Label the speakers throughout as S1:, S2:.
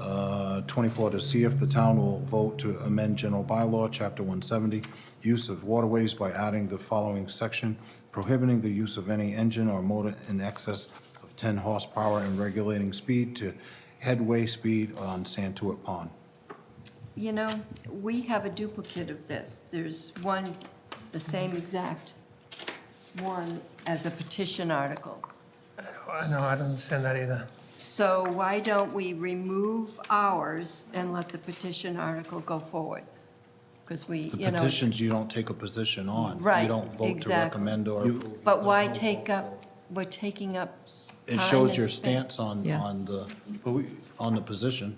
S1: uh, twenty-four to see if the town will vote to amend general bylaw, chapter one seventy, use of waterways by adding the following section, prohibiting the use of any engine or motor in excess of ten horsepower and regulating speed to headway speed on Santuit Pond.
S2: You know, we have a duplicate of this. There's one, the same exact one as a petition article.
S3: I know, I don't understand that either.
S2: So why don't we remove ours and let the petition article go forward? Because we,
S1: The
S2: you know, it's-
S1: petitions you don't take a position on.
S2: Right,
S1: You don't vote to
S2: exactly.
S1: recommend or approve.
S2: but why take up, we're taking up
S1: It
S2: time
S1: shows
S2: and
S1: your
S2: space.
S1: stance on,
S4: Yeah.
S1: on the, on the position,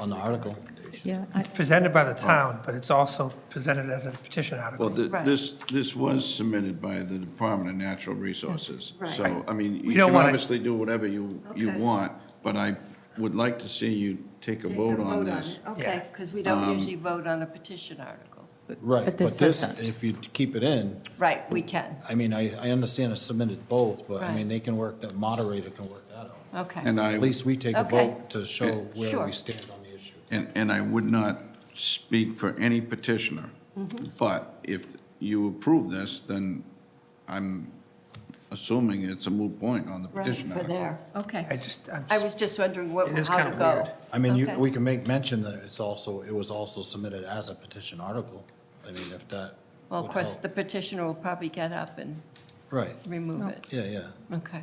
S1: on the article.
S4: Yeah, I-
S3: Presented by the town, but it's also presented as a petition
S5: Well,
S3: article.
S5: th-
S2: Right.
S5: this, this was submitted by the Department of Natural Resources.
S2: Yes, right.
S5: So, I mean, you
S3: We don't
S5: can
S3: wanna-
S5: obviously do whatever you, you
S2: Okay.
S5: want, but I would like to see you take a
S2: Take
S5: vote on
S2: it.
S5: this. Um,
S2: Okay,
S3: Yeah.
S2: because we don't usually vote on a petition article.
S1: Right, but
S4: But this
S1: this,
S4: doesn't.
S1: if you keep it in,
S2: Right, we can,
S1: I mean, I, I understand it's submitted both, but I mean,
S2: Right.
S1: they can work, that moderator can work that out.
S2: okay.
S5: And uh, I,
S1: At least we take a
S2: Okay.
S1: vote to show where
S2: Sure.
S1: we stand on the issue.
S5: and, and I would not speak for any petitioner,
S2: Mm-hmm.
S5: but if you approve this, then I'm assuming it's a moot point on the
S2: Right,
S5: petition
S2: for
S5: article.
S2: there, okay.
S3: I just, I'm
S2: I
S3: s-
S2: was just wondering what,
S3: It is
S2: how to
S3: kinda
S2: go.
S3: weird.
S1: I mean, you,
S2: Okay.
S1: we can make mention that it's also, it was also submitted as a petition article. I mean, if that
S2: Well, of
S1: would
S2: course,
S1: help.
S2: the petitioner will probably get up and
S1: Right,
S2: remove it.
S1: yeah, yeah.
S2: Okay.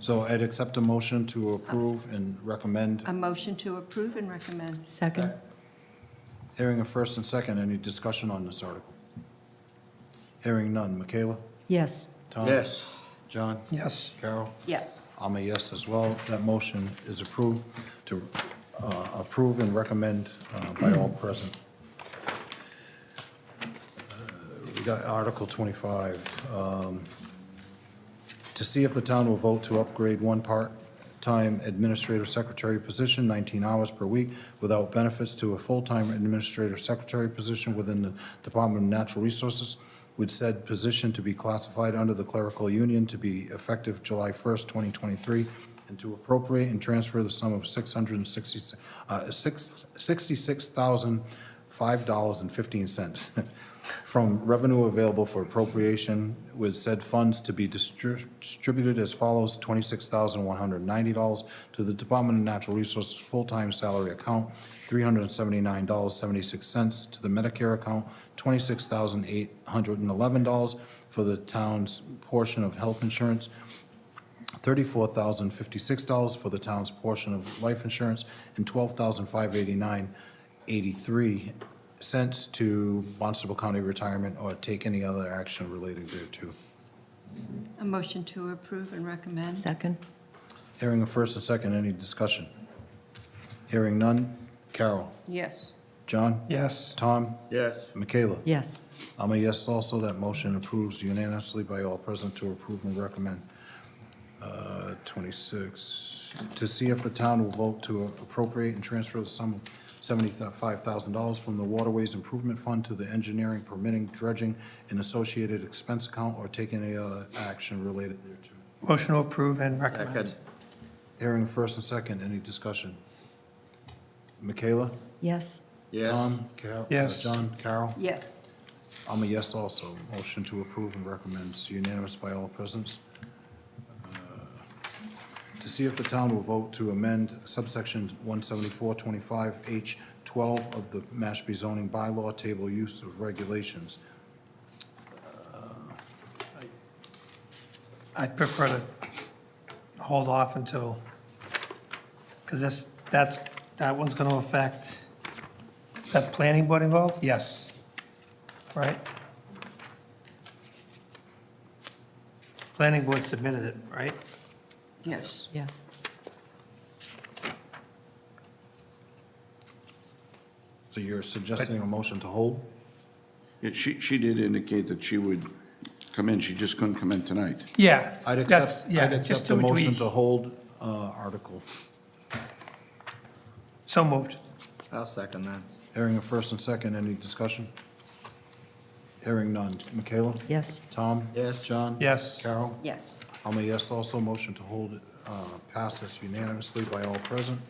S1: So I'd accept a motion to approve and recommend
S2: A motion to approve and recommend.
S4: second,
S1: Hearing a first and second, any discussion on this article? Hearing none. Michaela?
S4: yes,
S1: Tom? John?
S3: yes,
S1: Carol?
S2: Yes.
S1: I'm a yes as well. That motion is approved to uh, approve and recommend uh, by all present. Uh, We got Article 25. um, To see if the town will vote to upgrade one part-time administrative secretary position, 19 hours per week, without benefits, to a full-time administrative secretary position within the Department of Natural Resources, with said position to be classified under the clerical union to be effective July 1st, 2023, and to appropriate and transfer the sum of 666 uh, six- $66,005.15 from revenue available for appropriation with said funds to be distri- distributed as follows, $26,190 to the Department of Natural Resources full-time salary account, $379.76 to the Medicare account, $26,811 for the town's portion of health insurance, $34,056 for the town's portion of life insurance and $12,589.83 cents to Barnstable County Retirement or take any other action relating thereto.
S2: A motion to approve and recommend.
S4: second,
S1: Hearing a first and second, any discussion? Hearing none. Carol?
S2: Yes.
S1: John?
S3: yes.
S1: Tom?
S5: Yes.
S1: Michaela?
S4: yes,
S1: I'm a yes also. That motion approves unanimously by all present to approve and recommend. Uh, 26, to see if the town will vote to appropriate and transfer the sum of $75,000 from the Waterways Improvement Fund to the Engineering Permitting Dredging and Associated Expense Account or take any other action related thereto.
S3: Motion to approve and recommend.
S1: Hearing first and second, any discussion? Michaela?
S4: yes,
S1: Tom? Carol?
S3: Yes.
S1: John? Carol?
S2: Yes.
S1: I'm a yes also. Motion to approve and recommends unanimous by all presence. To see if the town will vote to amend subsection 17425H12 of the Mashpee zoning bylaw table use of regulations.
S3: I'd prefer to hold off until, because this, that's, that one's going to affect, is that planning board involved? Yes. Right? Planning board submitted it, right?
S2: Yes.
S4: yes,
S1: So you're suggesting a motion to hold?
S5: Yeah, She, she did indicate that she would come in, she just couldn't come in tonight.
S3: Yeah.
S1: I'd
S3: that's-
S1: accept,
S3: yeah,
S1: I'd
S3: just
S1: accept
S3: do
S1: a
S3: it. Do we-
S1: motion to hold uh, article.
S3: So moved.
S6: I'll second that.
S1: Hearing a first and second, any discussion? Hearing none. Michaela?
S4: yes,
S1: Tom?
S6: Yes.
S1: John?
S3: Yes.
S1: Carol?
S2: Yes.
S1: I'm a yes also. Motion to hold uh, passes unanimously by all present.